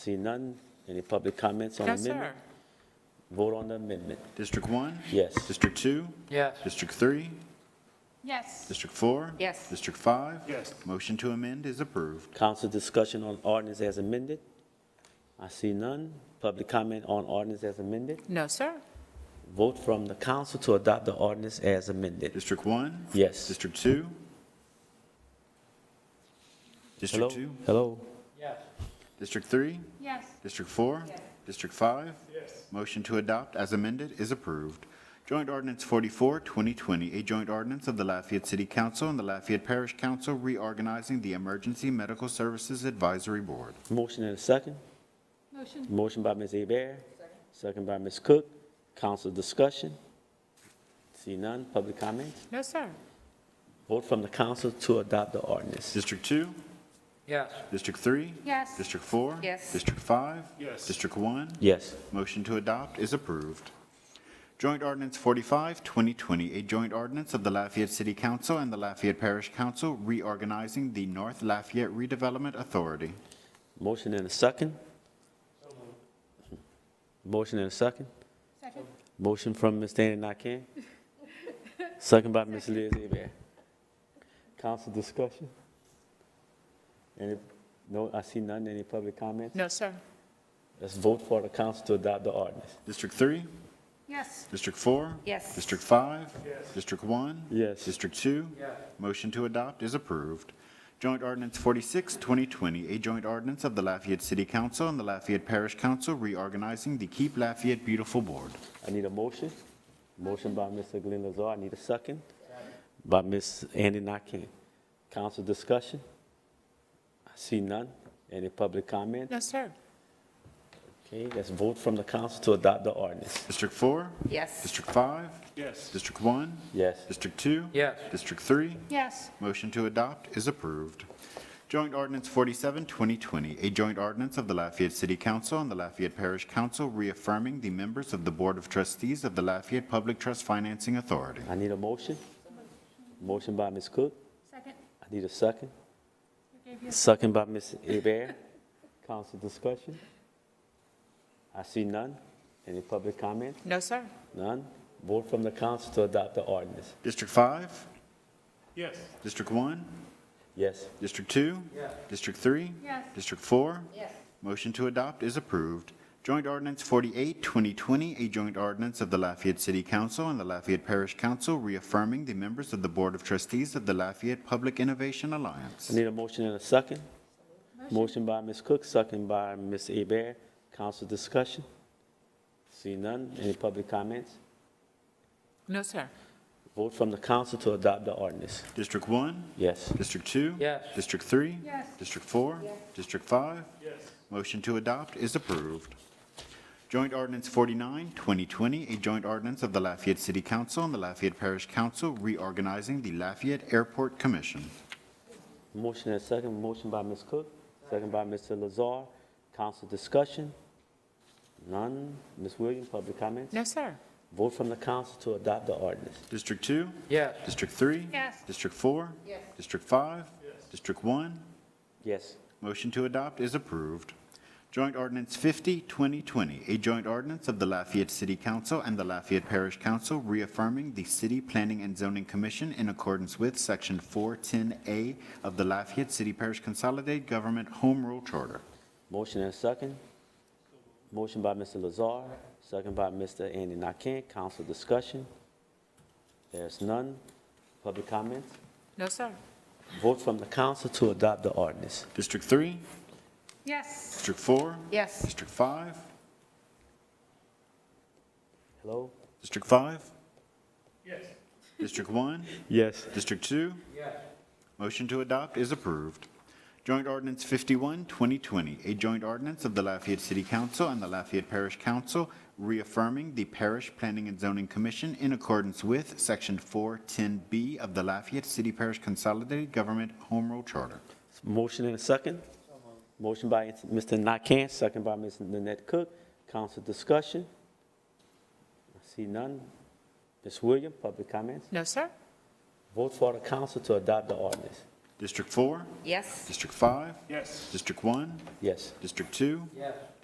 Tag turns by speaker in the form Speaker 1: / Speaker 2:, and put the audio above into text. Speaker 1: Seeing none, any public comments on
Speaker 2: No,
Speaker 1: amendment?
Speaker 2: sir.
Speaker 1: Vote on the amendment.
Speaker 3: District one?
Speaker 1: Yes.
Speaker 3: District two?
Speaker 4: Yes.
Speaker 3: District three?
Speaker 5: Yes.
Speaker 3: District four?
Speaker 5: Yes.
Speaker 3: District five?
Speaker 6: Yes.
Speaker 3: Motion to amend is approved.
Speaker 1: Council discussion on ordinance as amended? I see none. Public comment on ordinance as amended?
Speaker 2: No, sir.
Speaker 1: Vote from the council to adopt the ordinance as amended.
Speaker 3: District one?
Speaker 1: Yes.
Speaker 3: District two?
Speaker 1: Hello?
Speaker 3: District two?
Speaker 1: Hello?
Speaker 3: District three?
Speaker 5: Yes.
Speaker 3: District four? District five? Yes. Motion to adopt as amended is approved. Joint Ordinance 44, 2020, a joint ordinance of the Lafayette City Council and the Lafayette Parish Council reorganizing the Emergency Medical Services Advisory Board.
Speaker 1: Motion and a second?
Speaker 5: Motion.
Speaker 1: Motion by Ms. Abear, second by Ms. Cook. Council discussion? See none, public comments?
Speaker 2: No, sir.
Speaker 1: Vote from the council to adopt the ordinance.
Speaker 3: District two?
Speaker 4: Yes.
Speaker 3: District three?
Speaker 5: Yes.
Speaker 3: District four?
Speaker 5: Yes.
Speaker 3: District five?
Speaker 6: Yes.
Speaker 3: District one?
Speaker 1: Yes.
Speaker 3: Motion to adopt is approved. Joint Ordinance 45, 2020, a joint ordinance of the Lafayette City Council and the Lafayette Parish Council reorganizing the North Lafayette Redevelopment Authority.
Speaker 1: Motion and a second? Motion and a second?
Speaker 5: Second.
Speaker 1: Motion from Ms. Dana Nakane, second by Ms. Liz Abear. Council discussion? Any, no, I see none, any public comments?
Speaker 2: No, sir.
Speaker 1: Let's vote for the council to adopt the ordinance.
Speaker 3: District 3?
Speaker 5: Yes.
Speaker 3: District 4?
Speaker 5: Yes.
Speaker 3: District 5? Yes. District 1?
Speaker 1: Yes.
Speaker 3: District 2? Yes. Motion to adopt is approved. Joint Ordinance 46, 2020, a joint ordinance of the Lafayette City Council and the Lafayette Parish Council reorganizing the Keep Lafayette Beautiful Board.
Speaker 1: I need a motion. Motion by Mr. Glenn Lazar, I need a second. By Ms. Andy Nakane. Council discussion? I see none, any public comment?
Speaker 2: No, sir.
Speaker 1: Okay, let's vote from the council to adopt the ordinance.
Speaker 3: District 4?
Speaker 5: Yes.
Speaker 3: District 5?
Speaker 6: Yes.
Speaker 3: District 1?
Speaker 1: Yes.
Speaker 3: District 2?
Speaker 4: Yes.
Speaker 3: District 3?
Speaker 5: Yes.
Speaker 3: Motion to adopt is approved. Joint Ordinance 47, 2020, a joint ordinance of the Lafayette City Council and the Lafayette Parish Council reaffirming the members of the Board of Trustees of the Lafayette Public Trust Financing Authority.
Speaker 1: I need a motion. Motion by Ms. Cook.
Speaker 5: Second.
Speaker 1: I need a second.
Speaker 5: gave you-
Speaker 1: Second by Ms. Abear. Council discussion? I see none. Any public comment?
Speaker 2: No, sir.
Speaker 1: None. Vote from the council to adopt the ordinance.
Speaker 3: District 5?
Speaker 6: Yes.
Speaker 3: District 1?
Speaker 1: Yes.
Speaker 3: District 2? District 3?
Speaker 5: Yes.
Speaker 3: District 4?
Speaker 5: Yes.
Speaker 3: Motion to adopt is approved. Joint Ordinance 48, 2020, a joint ordinance of the Lafayette City Council and the Lafayette Parish Council reaffirming the members of the Board of Trustees of the Lafayette Public Innovation
Speaker 1: I
Speaker 3: Alliance.
Speaker 1: need a motion and a second. Motion by Ms. Cook, second by Ms. Abear. Council discussion? See none. Any public comments?
Speaker 2: No, sir.
Speaker 1: Vote from the council to adopt the ordinance.
Speaker 3: District 1?
Speaker 1: Yes.
Speaker 3: District 2?
Speaker 4: Yes.
Speaker 3: District 3?
Speaker 5: Yes.
Speaker 3: District 4? District 5?
Speaker 6: Yes.
Speaker 3: Motion to adopt is approved. Joint Ordinance 49, 2020, a joint ordinance of the Lafayette City Council and the Lafayette Parish Council reorganizing the Lafayette Airport Commission.
Speaker 1: Motion and second, motion by Ms. Cook, second by Mr. Lazar. Council discussion? None. Ms. Williams, public comments?
Speaker 2: No, sir.
Speaker 1: Vote from the council to adopt the ordinance.
Speaker 3: District 2?
Speaker 4: Yes.
Speaker 3: District 3?
Speaker 5: Yes.
Speaker 3: District 4? Yes. District 5? Yes. District 1?
Speaker 1: Yes.
Speaker 3: Motion to adopt is approved. Joint Ordinance 50, 2020, a joint ordinance of the Lafayette City Council and the Lafayette Parish Council reaffirming the City Planning and Zoning Commission in accordance with Section 410A of the Lafayette City Parish Consolidated Government Home Rule Charter.
Speaker 1: Motion and second. Motion by Mr. Lazar, second by Mr. Andy Nakane. Council discussion? There's none. Public comments?
Speaker 2: No, sir.
Speaker 1: Vote from the council to adopt the ordinance.
Speaker 3: District 3,
Speaker 5: Yes.
Speaker 3: District 4,
Speaker 5: Yes.
Speaker 3: District 5,
Speaker 1: Hello?
Speaker 3: District 5,
Speaker 6: Yes.
Speaker 3: District 1,
Speaker 1: Yes.
Speaker 3: District 2? Yes. Motion to adopt is approved. Joint Ordinance 51, 2020, a joint ordinance of the Lafayette City Council and the Lafayette Parish Council reaffirming the Parish Planning and Zoning Commission in accordance with Section 410B of the Lafayette City Parish Consolidated Government Home Rule Charter.
Speaker 1: Motion and a second. Motion by Mr. Nakane, second by Ms. Nanette Cook. Council discussion? I see none. Ms. Williams, public comments?
Speaker 2: No, sir.
Speaker 1: Vote for the council to adopt the ordinance.
Speaker 3: District 4,
Speaker 4: yes.
Speaker 3: District 5,
Speaker 6: Yes.
Speaker 3: District 1,
Speaker 1: Yes.
Speaker 3: District 2,